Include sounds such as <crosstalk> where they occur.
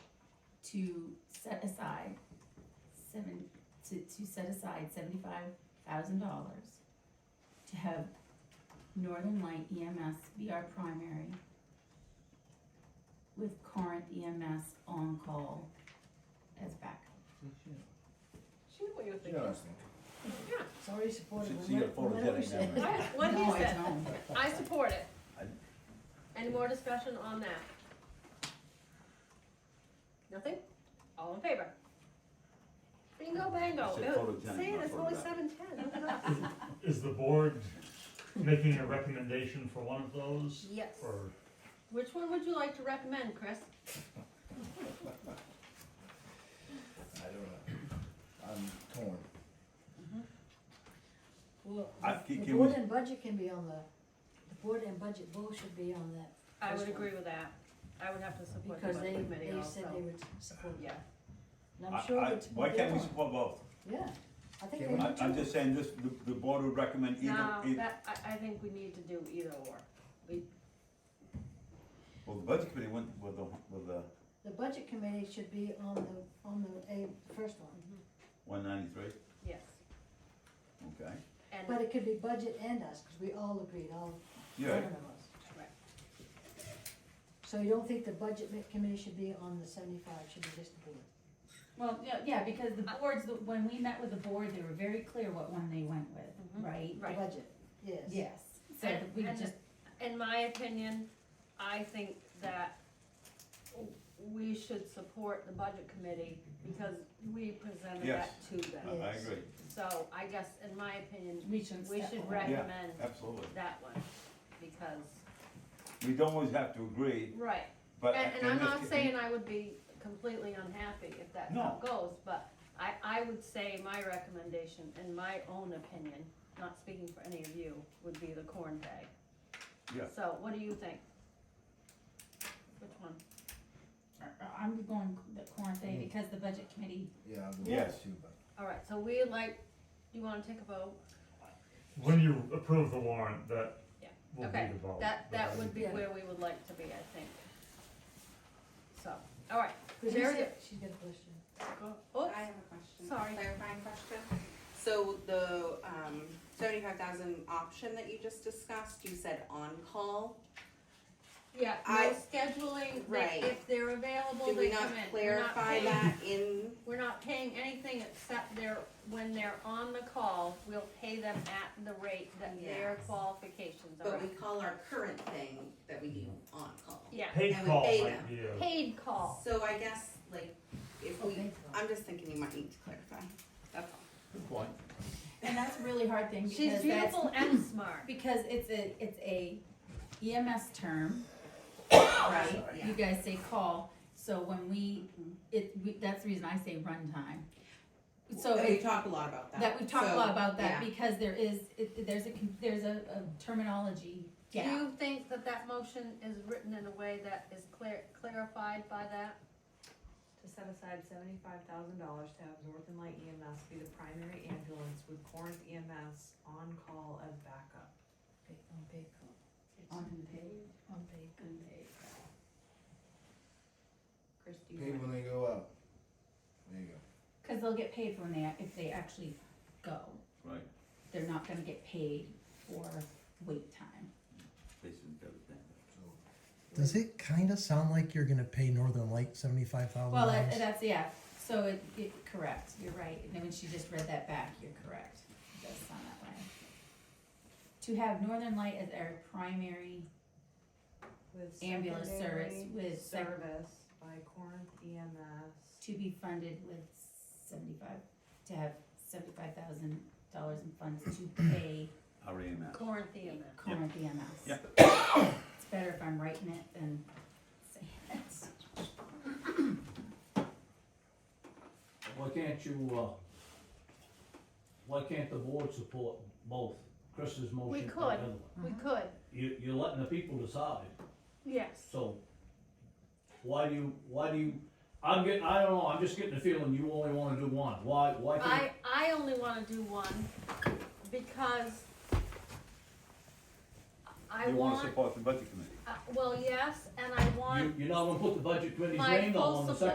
to set aside seven, to, to set aside seventy-five thousand dollars to have Northern Light EMS be our primary with Corinth EMS on call as backup. She knew what you were thinking. Interesting. It's already supported. So- so you got photogenic memory. I, what he No, I said, don't. I support it. I- Any more discussion on that? Nothing? All in favor? Bingo bango. I said It was- photogenic, See, not it's only photographic. seven ten, look it <laughs> up. Is the board making a recommendation for one of those? Yes. Or, Which one would you like to recommend, Chris? I don't know. I'm torn. Well, I- the can- can board we- and budget can be on the, the board and budget both should be on that, I would First one. agree with that. I would have to support the because they, budget committee they said they also. would support it. Yeah, And I- I'm sure I- it's. Why can't we they're on. support both? Yeah, I think I, they I'm do too. just saying this, the, the board would recommend either, now, eith- that, I, I think we need to do either or. We, well, the budget committee went with the, with the The budget committee should be on the, on the, a, first one, one ninety-three, yes. okay? And but it could be budget and us, cause we all agreed, all Yeah, seven of us. Right. So you don't think the budget mi- committee should be on the seventy-five, should be just the board? Well, yeah, yeah, because the boards, the- when we met with the board, they were very clear what one they went with, Mhm. right? Right. The budget, yes. Yes, so And- we and- just, in my opinion, I think that we should support the budget committee because we presented that Yes. to I, them. I Yes. agree, So I guess, in my opinion, we should we step should away. recommend absolutely. that one because, We don't always have to agree, right. but. And, and in I'm this not ca- saying I would be completely unhappy if that's how it goes, but I, I would say my recommendation, in my own opinion, not speaking for any of you, would be the corn bag. Yeah. So what do you think? Which one? I'm going the Corinth thing because the budget committee, Yeah, I'll do Yes. that too, but All right, so we like, do you wanna take a vote? when you approve the warrant, that Yeah. will be Okay. the vote. That, that would be Yeah. where we would like to be, I think. So, all right, Cause you There it said, she's got a question. go, oh, I have a question. Sorry. Clarifying question. So the, um, seventy-five thousand option that you just discussed, you said on-call? yeah, no I- scheduling, they, Right. if they're available, Did they we come not in. We're not clarify paying- that in, We're not paying anything except they're, when they're on the call, we'll pay them at the rate that their Yes. qualifications are. but we call our current thing that we do on-call? Yeah, Paid and we call pay might them. be a, paid call, So I guess, like, if we, Okay, cool. I'm just thinking you might need to clarify, that's all. Good point. and that's a really hard thing she's because that's, <laughs> beautiful and smart, because it's a, it's a EMS term, right? Sorry. You guys say call, so when we, it, we, that's the reason I say runtime. So And we it- talk a lot about that. that, we've talked a So, lot about that yeah. because there is, it, there's a, con- there's a a terminology do gap. you think that that motion is written in a way that is clear, clarified by that? to set aside seventy-five thousand dollars to have North and Light EMS be the primary ambulance with Corinth EMS on call as backup. Okay, on paid call, Unpaid. on paid. Unpaid. Chris, do you paid want? when they go out. There you go. Cause they'll get paid when they, if they actually go, Right, they're not gonna get paid for wait time. this is the other thing. So, Does it kind of sound like you're going to pay Northern Light seventy-five thousand Well, dollars? that- that's, yeah, so it, it, correct, you're right, and then when she just read that back, you're correct, it does sound that way. To have Northern Light as our primary With ambulance service secondary with sec- Service by Corinth E EMS. to be funded with seventy-five, to have seventy-five thousand dollars in funds to pay Our EMS. Corinthian then. Corinth EMS. Yep. It's better if I'm writing it than saying it. Why can't you, uh, why can't the board support both Chris's motion and the could. other one? We could, You, you're letting the people decide, yes, so why do you, why do you, I'm getting, I don't know, I'm just getting the feeling you only wanna do one, why, why can't? I, I only wanna do one because I You wanna want, support the budget committee? uh, well, yes, and I want You, you're not gonna put the budget committee's My name though full on the support. second